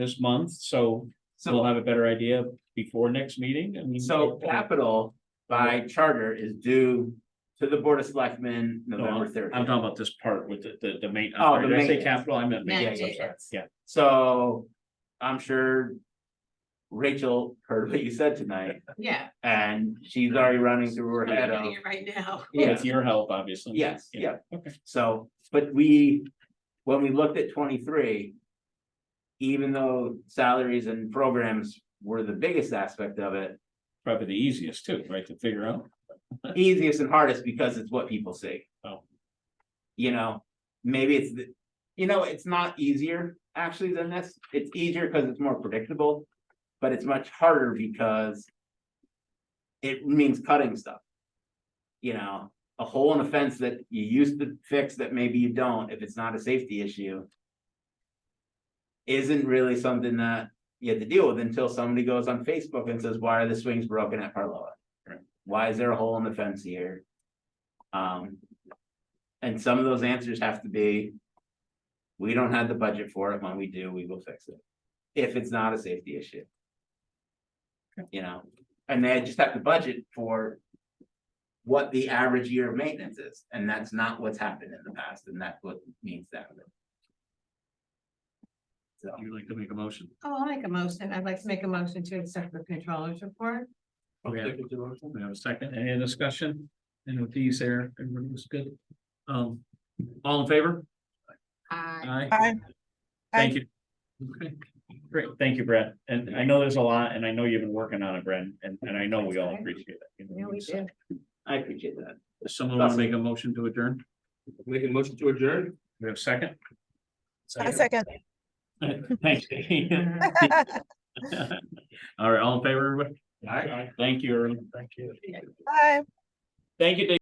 this month, so we'll So, have a better idea before next meeting, I mean. so capital by charter is due to the Board of Selectmen No, I'm November thirtieth. I'm talking about this part with the, the, the main, I'm Oh, sorry, the did I say maintenance. capital, I meant Manage maintenance, I'm sorry, it. yeah. So I'm sure Rachel heard what you said tonight Yeah. and she's already running through her I'm head doing of, it Right now. yeah, With your help, obviously. yes, yeah. Okay. So, but we, when we looked at twenty-three, even though salaries and programs were the biggest aspect of it, Probably the easiest too, right, to figure out. easiest and hardest because it's what people see. Oh. You know, maybe it's the, you know, it's not easier actually than this. It's easier because it's more predictable. But it's much harder because. It means cutting stuff. You know, a hole in a fence that you used to fix that maybe you don't, if it's not a safety issue. Isn't really something that you have to deal with until somebody goes on Facebook and says, why are the swings broken at Parloa? why is there a hole in the fence here? Um, and some of those answers have to be. We don't have the budget for it, when we do, we will fix it, if it's not a safety issue. You know, and they just have to budget for. What the average year of maintenance is, and that's not what's happened in the past, and that's what needs to happen. So, You'd like to make a motion? Oh, I'll make a motion. I'd like to make a motion to accept the controller's report. Okay, we have a second, any other discussion? And with these there, everybody was good. Um, all in favor? I Aye. Thank you. Okay, great, thank you, Brad, and I know there's a lot, and I know you've been working on it, Brad, and, and I know we all appreciate it. You know, know we so- did. I appreciate that. Does Someone wanna make a motion to adjourn? Make a motion to adjourn? We have a second? A second. Thanks. Katie. All right, all in favor, everybody? Aye. Thank you, everyone. Thank you. Bye. Thank you, Dave.